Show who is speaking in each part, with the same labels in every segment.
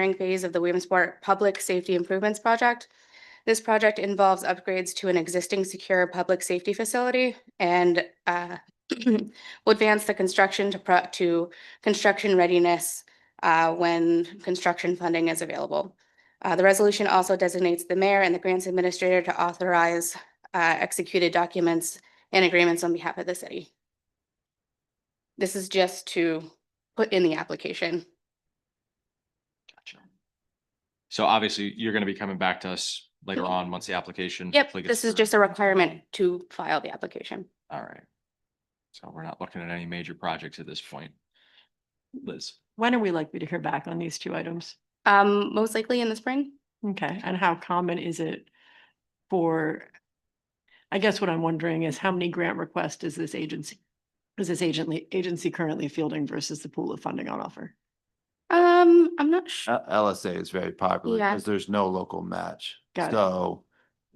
Speaker 1: engineering phase of the Williamsport Public Safety Improvements Project. This project involves upgrades to an existing secure public safety facility and uh, will advance the construction to pro- to construction readiness uh, when construction funding is available. Uh, The resolution also designates the mayor and the grants administrator to authorize uh, executed documents and agreements on behalf of the city. This is just to put in the application.
Speaker 2: Gotcha. So obviously, you're gonna be coming back to us later on, once the application.
Speaker 1: Mm-hmm. Yep,
Speaker 2: hopefully gets
Speaker 1: this is
Speaker 2: through.
Speaker 1: just a requirement to file the application.
Speaker 2: All right. So we're not looking at any major projects at this point. Liz,
Speaker 3: When are we likely to hear back on these two items?
Speaker 1: Um, most likely in the spring.
Speaker 3: Okay, and how common is it for? I guess what I'm wondering is how many grant requests is this agency? Is this agency, agency currently fielding versus the pool of funding on offer?
Speaker 1: Um, I'm not sure.
Speaker 4: L- LSA is very popular
Speaker 1: Yeah.
Speaker 4: because there's no local match.
Speaker 3: Got it.
Speaker 4: So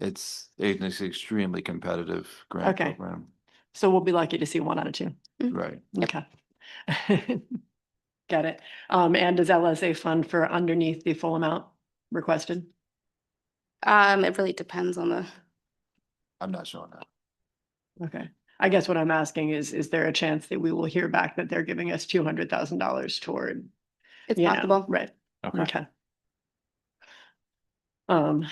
Speaker 4: it's, it's an extremely competitive grant
Speaker 3: Okay.
Speaker 4: program,
Speaker 3: So we'll be lucky to see one out of two.
Speaker 4: right?
Speaker 3: Okay. Got it. Um, and does LSA fund for underneath the full amount requested?
Speaker 1: Um, it really depends on the,
Speaker 4: I'm not showing that.
Speaker 3: Okay. I guess what I'm asking is, is there a chance that we will hear back that they're giving us two hundred thousand dollars toward?
Speaker 1: it's
Speaker 3: you know,
Speaker 1: possible.
Speaker 3: Right.
Speaker 1: Mm-hmm.
Speaker 2: okay,
Speaker 3: Okay. Um,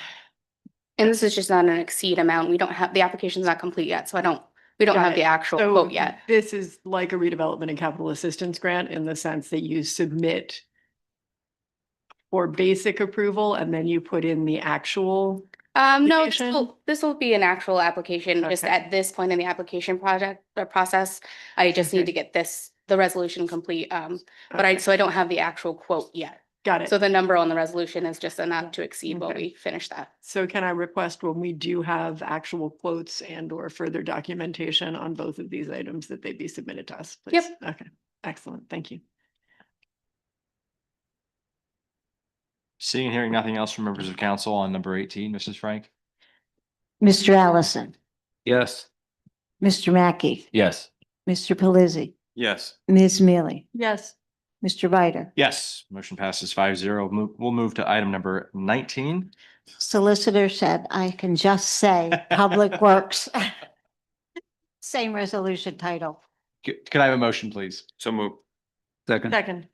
Speaker 1: And this is just not an exceed amount. We don't have, the application's not complete yet, so I don't, we don't
Speaker 3: Got
Speaker 1: have
Speaker 3: it.
Speaker 1: the actual
Speaker 3: so
Speaker 1: quote yet.
Speaker 3: this is like a redevelopment and capital assistance grant in the sense that you submit for basic approval and then you put in the actual,
Speaker 1: Um, no, this
Speaker 3: application?
Speaker 1: will, this will be an actual application, just
Speaker 3: Okay.
Speaker 1: at this point in the application project, the process. I just need
Speaker 3: Okay.
Speaker 1: to get this, the resolution complete, um, but I,
Speaker 3: Okay,
Speaker 1: so I don't have the actual quote yet.
Speaker 3: got it.
Speaker 1: So the number on the resolution is just enough to exceed while
Speaker 3: Okay.
Speaker 1: we finish that.
Speaker 3: So can I request when we do have actual quotes and or further documentation on both of these items that they be submitted to us?
Speaker 1: Yep.
Speaker 3: please? Okay, excellent. Thank you.
Speaker 2: seeing and hearing nothing else from members of council on number eighteen, Mrs. Frank?
Speaker 5: Mr. Allison,
Speaker 4: Yes.
Speaker 5: Mr. Mackey,
Speaker 2: Yes.
Speaker 5: Mr. Pelisi,
Speaker 2: Yes.
Speaker 5: Ms. Mealy,
Speaker 3: Yes.
Speaker 5: Mr. Bider.
Speaker 2: Yes, motion passes five zero. We'll move to item number nineteen.
Speaker 5: Solicitor said, I can just say Public Works. Same resolution title.
Speaker 2: C- Can I have a motion, please?
Speaker 4: So move. Second.
Speaker 3: Second.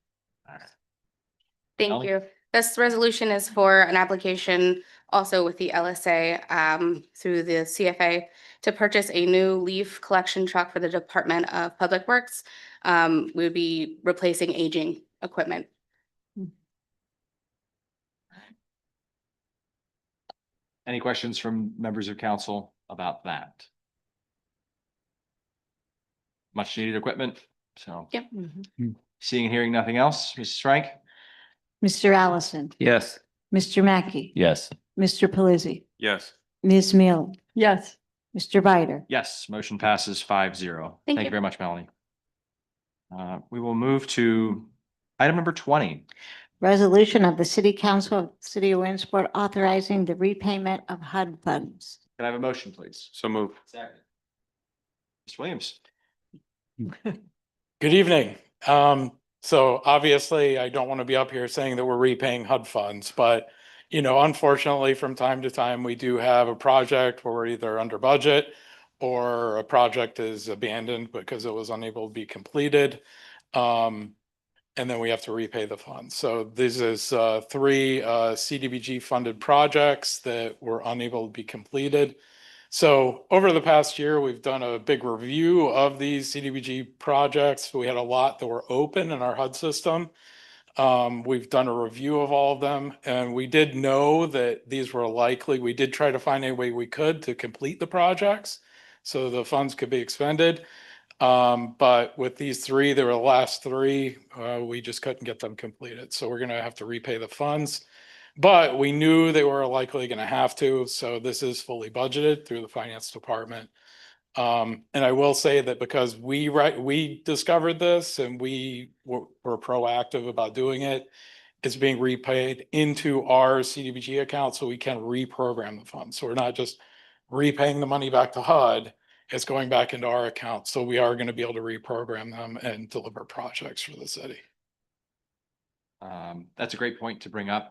Speaker 1: Thank
Speaker 2: Ally?
Speaker 1: you. This resolution is for an application also with the LSA um, through the CFA to purchase a new leaf collection truck for the Department of Public Works. Um, We would be replacing aging equipment.
Speaker 2: Any questions from members of council about that? Much needed equipment, so seeing and hearing nothing else, Mrs. Frank?
Speaker 5: Mr. Allison,
Speaker 4: Yes.
Speaker 5: Mr. Mackey,
Speaker 2: Yes.
Speaker 5: Mr. Pelisi,
Speaker 4: Yes.
Speaker 5: Ms. Mealy,
Speaker 3: Yes.
Speaker 5: Mr. Bider.
Speaker 2: Yes, motion passes five zero.
Speaker 1: Thank
Speaker 2: Thank you
Speaker 1: you.
Speaker 2: very much, Melanie. Uh, we will move to item number twenty.
Speaker 5: Resolution of the City Council of the City of Williamsport authorizing the repayment of HUD funds.
Speaker 2: Can I have a motion, please?
Speaker 4: So move.
Speaker 2: Second. Mr. Williams?
Speaker 6: Good evening. Um, so obviously I don't want to be up here saying that we're repaying HUD funds, but you know, unfortunately, from time to time, we do have a project where we're either under budget or a project is abandoned because it was unable to be completed. Um, and then we have to repay the funds. So this is uh, three uh, CDBG funded projects that were unable to be completed. So over the past year, we've done a big review of these CDBG projects. We had a lot that were open in our HUD system. Um, we've done a review of all of them and we did know that these were likely, we did try to find any way we could to complete the projects. So the funds could be expended. Um, but with these three, they were the last three, uh, we just couldn't get them completed. So we're gonna have to repay the funds. But we knew they were likely going to have to, so this is fully budgeted through the finance department. Um, and I will say that because we right, we discovered this and we were, were proactive about doing it. It's being repaid into our CDBG account, so we can reprogram the funds. So we're not just repaying the money back to HUD. It's going back into our account, so we are going to be able to reprogram them and deliver projects for the city.
Speaker 2: Um, that's a great point to bring up.